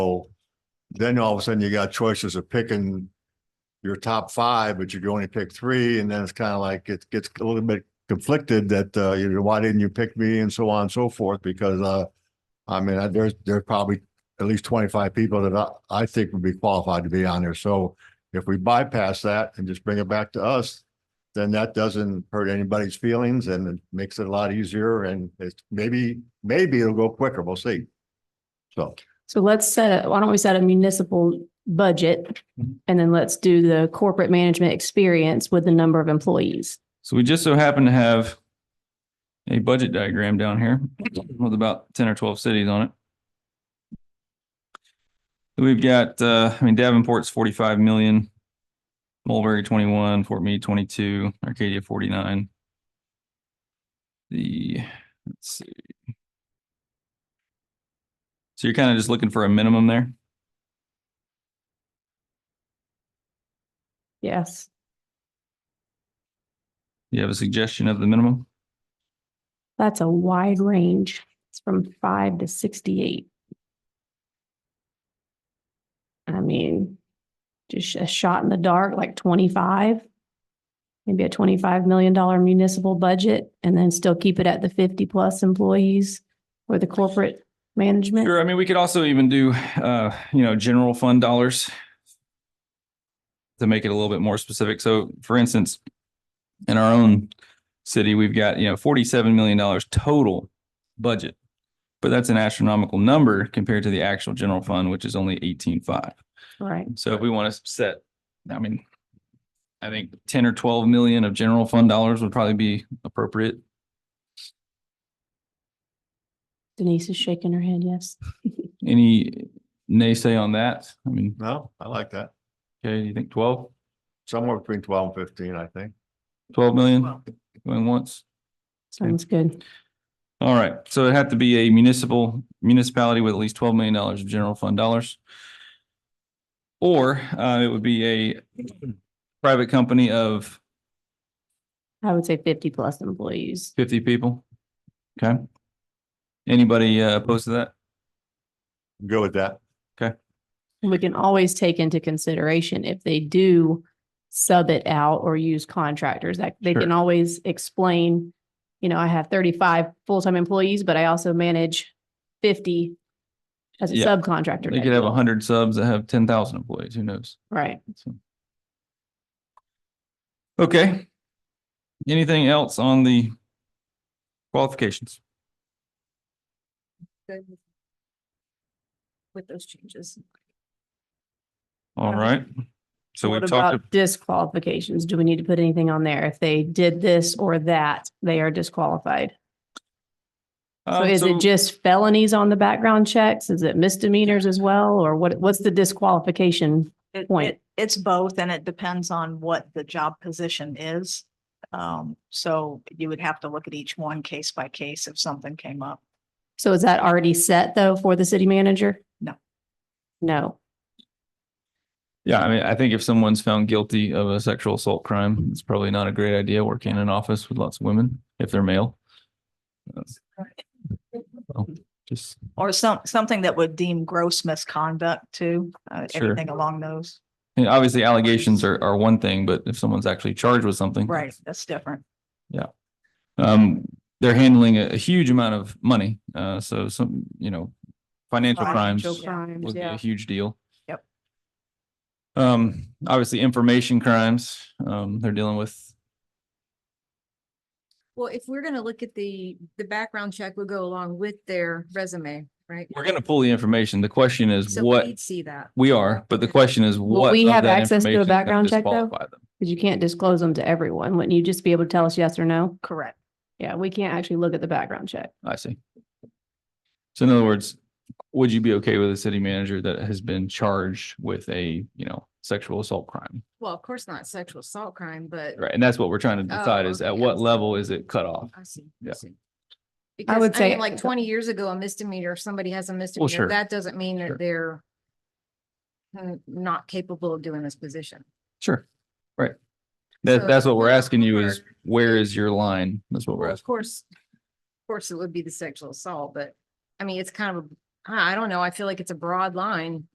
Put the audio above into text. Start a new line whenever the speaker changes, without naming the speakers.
Then all of a sudden you got choices of picking your top five, but you can only pick three. And then it's kind of like it gets a little bit conflicted that, uh, you know, why didn't you pick me and so on and so forth? Because, uh, I mean, I- there's, there's probably at least twenty-five people that I, I think would be qualified to be on there. So if we bypass that and just bring it back to us, then that doesn't hurt anybody's feelings and it makes it a lot easier and it's maybe, maybe it'll go quicker. We'll see. So.
So let's set, a why don't we set a municipal budget?
Mhm.
And then let's do the corporate management experience with the number of employees.
So we just so happen to have a budget diagram down here with about ten or twelve cities on it. We've got, uh, I mean Davenport's forty-five million, Mulberry twenty-one, Fort Meade twenty-two, Arcadia forty-nine. The, let's see. So you're kind of just looking for a minimum there?
Yes.
You have a suggestion of the minimum?
That's a wide range. It's from five to sixty-eight. I mean, just a shot in the dark, like twenty-five. Maybe a twenty-five million dollar municipal budget and then still keep it at the fifty-plus employees or the corporate management.
Sure, I mean, we could also even do, uh, you know, general fund dollars to make it a little bit more specific. So for instance, in our own city, we've got, you know, forty-seven million dollars total budget. But that's an astronomical number compared to the actual general fund, which is only eighteen-five.
Right.
So if we want to set, I mean, I think ten or twelve million of general fund dollars would probably be appropriate.
Denise is shaking her head, yes.
Any naysay on that? I mean,
No, I like that.
okay, you think twelve?
Somewhere between twelve and fifteen, I think.
Twelve million going once.
Sounds good.
All right, so it had to be a municipal municipality with at least twelve million dollars of general fund dollars. Or uh, it would be a private company of
I would say fifty plus employees.
fifty people. Okay. Anybody uh, opposed to that?
Go with that.
We can always take into consideration if they do sub it out or use contractors, that they can
Sure.
always explain, you know, I have thirty-five full-time employees, but I also manage fifty as a
Yeah.
subcontractor.
They
type
could have
deal.
hundred subs that have ten thousand employees, who knows?
Right.
So. Okay. Anything else on the qualifications?
good with- with those changes.
All right. So we
What
talked,
about disqualifications? Do we need to put anything on there? If they did this or that, they are disqualified. So
Um,
is
so-
it just felonies on the background checks? Is it misdemeanors as well? Or what, what's the disqualification?
It-
Point.
it- It's both and it depends on what the job position is. Um, so you would have to look at each one case by case if something came up.
So is that already set though for the city manager?
No.
No.
Yeah, I mean, I think if someone's found guilty of a sexual assault crime, it's probably not a great idea working in an office with lots of women if they're male. So, Just,
Or some, something that would deem gross misconduct too, uh,
Sure.
anything along those.
and obviously allegations are, are one thing, but if someone's actually charged with something.
Right, that's different.
Um, they're handling a, a huge amount of money. Uh, so some, you know, financial crimes
Financial
would
crimes,
be
yeah.
a huge deal.
Yep.
Um, obviously information crimes, um, they're dealing with,
Well, if we're gonna look at the, the background check would go along with their resume, right?
we're going to pull the information. The question is
So
what?
we'd See that.
We are, but the question is
Will
what?
we
of
have
that
access to a
information is gonna
background check, though?
disqualify them?
Because you can't disclose them to everyone. Wouldn't you just be able to tell us yes or no?
Correct.
Yeah, we can't actually look at the background check.
I see. So in other words, would you be okay with a city manager that has been charged with a, you know, sexual assault crime?
Well, of course not sexual assault crime, but
Right, and that's what we're trying to
Oh,
decide is at
okay, I
what
see.
level is it cut off?
I see.
Yeah.
see. Because,
would
I mean,
say-
Like twenty years ago, a misdemeanor, if somebody has a
sure.
misdemeanor, that doesn't mean
Sure.
that they're uh, not capable of doing this position.
Sure. Right. That,
So-
that's what we're asking you is where is your line? That's what we're
Well, of
asking.
course, of course, it would be the sexual assault, but I mean, it's kind of a I I don't know. I feel like it's a broad line.